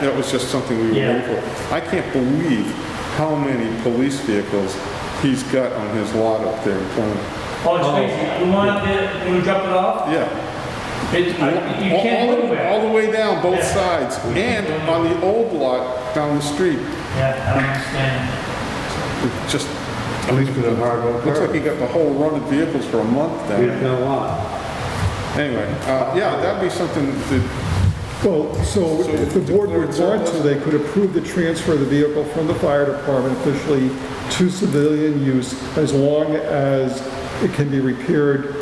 That was just something we were Yeah. waiting for. I can't believe how many police vehicles he's got on his lot up there in Plymouth. Oh, it's crazy. The one up there, when we dropped it off, Yeah. it, Uh, Oh. you can't All- all- go All anywhere. the way down, both Yeah. sides, and on the old lot down the street. Yeah, I don't understand. It just, At least with a hard old looks like curb. he got the whole run of vehicles for a month down We there. have done a lot. Anyway, uh, yeah, that'd be something that, Well, so if the board would want to, they could approve the transfer of the vehicle from the fire department officially to civilian use as long as it can be repaired.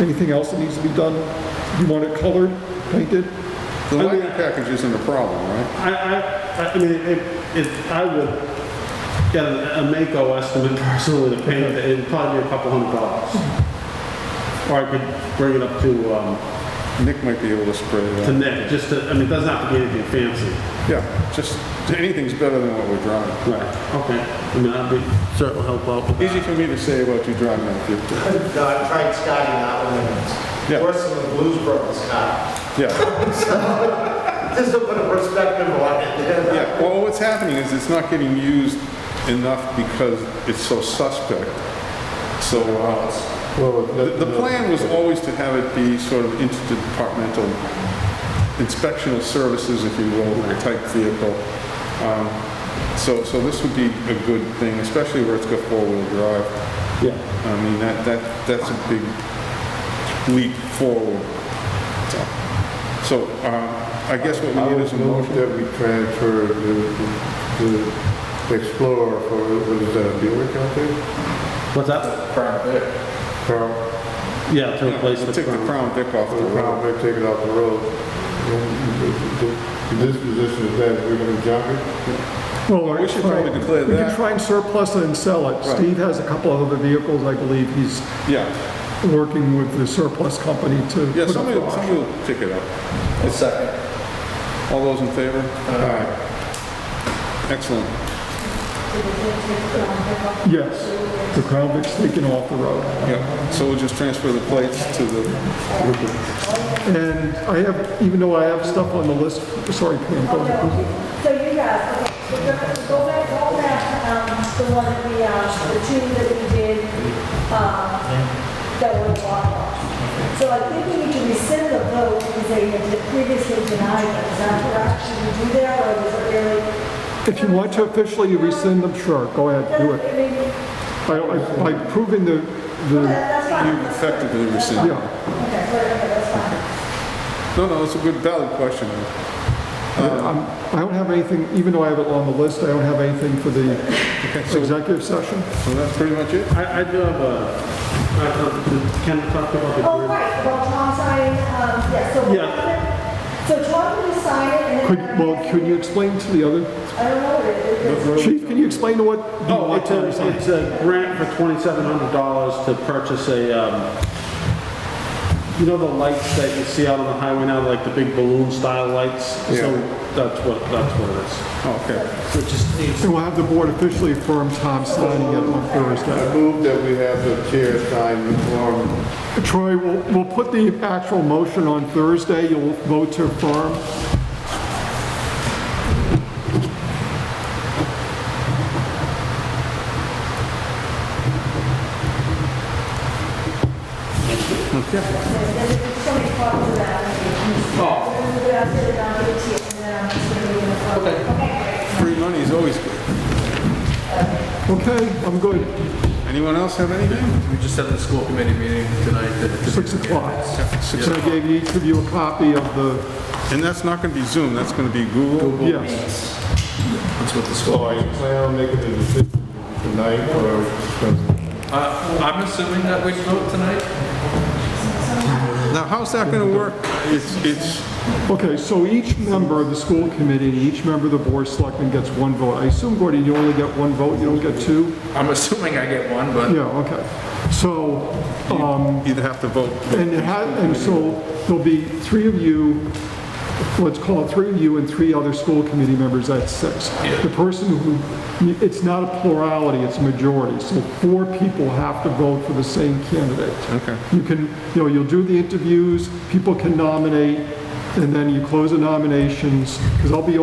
Anything else that needs to be done? You want it colored, painted? the I mean- lighting package isn't a problem, right? I, I, I- I mean, it, it, I would get a a Mako estimate personally to paint it, it'd probably be a couple hundred dollars. Or I could bring it up to, um, Nick might be able to spray it to out. Nick, just to, I mean, it doesn't have to be anything fancy. Yeah, just, anything's better than what we're drawing. Right, okay. I mean, that'd be, certainly help out with that. Easy for me to say about you driving that vehicle. No, I tried Scotty, not Williams. Yeah. Worse than the Blues Brothers, Scott. Yeah, Just to put a perspective on it. yeah. Well, what's happening is it's not getting used enough because it's so suspect. So, uh, Well, the, the plan was always to have it be sort of interdepartmental inspectional services, if you will, type vehicle. Um, So, so this would be a good thing, especially where it's got four-wheel drive. Yeah, I mean, that, that, that's a big leap forward. So- So, um, I guess what we I need would is a move motion. that we transfer the, the Explorer for, what is that, a Buick out there? what's that? Crown, Yeah, to Yeah, replace we'll the. Take the front. Crown Vic off for the the road. Crown, they take it off the road. And the- the- The disposition of that, we're gonna junk it? Well, We should probably declare We that. can try and surplus it and sell it. Right. Steve has a couple of other vehicles, I believe he's Yeah, working with the surplus company to. yeah, put up somebody, for auction. somebody will pick it up. second. All those in favor? Aye. Excellent. Yes, the Crown Vic's taken off the road. Yeah, so we'll just transfer the plates to the, And I have, even though I have stuff on the list, sorry, Pam, go ahead. So you guys, okay, so go back, go back, go back to, um, the one that we, um, the two that we did, um, that were water loss. So I think we need to rescind the vote because they had previously denied it. Is that correct? Should we do that or is it really? If you want to officially rescind them, sure, go ahead, do it. I mean, By- By proving the, the, That's you fine. effectively rescind. yeah, Okay, whatever, that's fine. No, no, it's a good valid question. Uh, Um, I don't have anything, even though I have it on the list, I don't have anything for the executive session. So that's pretty much it? I, I do have a, I have, can I talk about the. Oh, green- right, about Tom signing, um, yeah, so. Yeah. So Tom will sign it and then. Could, well, could you explain to the other, I don't know, it- it- it's- chief, can you explain to what? you Oh, want it's to a, resign? it's a grant for twenty-seven hundred dollars to purchase a, um, you know the lights that you see out on the highway now, like the big balloon style lights? Yeah. So that's what, that's what it Oh, Okay. is. So it just needs. And we'll have the board officially affirm Tom signing it on Thursday. I move that we have the chair sign the form. Troy, we'll, we'll put the actual motion on Thursday, you'll vote to affirm. There's somebody talking to that. Oh. We're going to sit it down to the table, and then I'm just going to be in the front. Okay. Free money is always good. Okay, I'm good, Anyone else have anything? We just had the school committee meeting tonight. that- 6 o'clock. Six So I gave each of you a copy of the, And that's not gonna be Zoom, that's gonna be Google. yes. That's what the So school. are you planning on making a decision tonight or just gonna- Uh, I'm assuming that we vote tonight. Now, how's that gonna work? It's, it's, Okay, so each member of the school committee, and each member of the board of selectmen gets one vote. I assume, Gordon, you only get one vote, you don't get two? I'm assuming I get one, but Yeah, okay. So, you'd have to vote. and it has, and so there'll be three of you, let's call it three of you and three other school committee members, that's six. The person who, it's not a plurality, it's a majority, so four people have to vote for the same candidate. Okay. You can, you know, you'll do the interviews, people can nominate, and then you close the nominations, because I'll be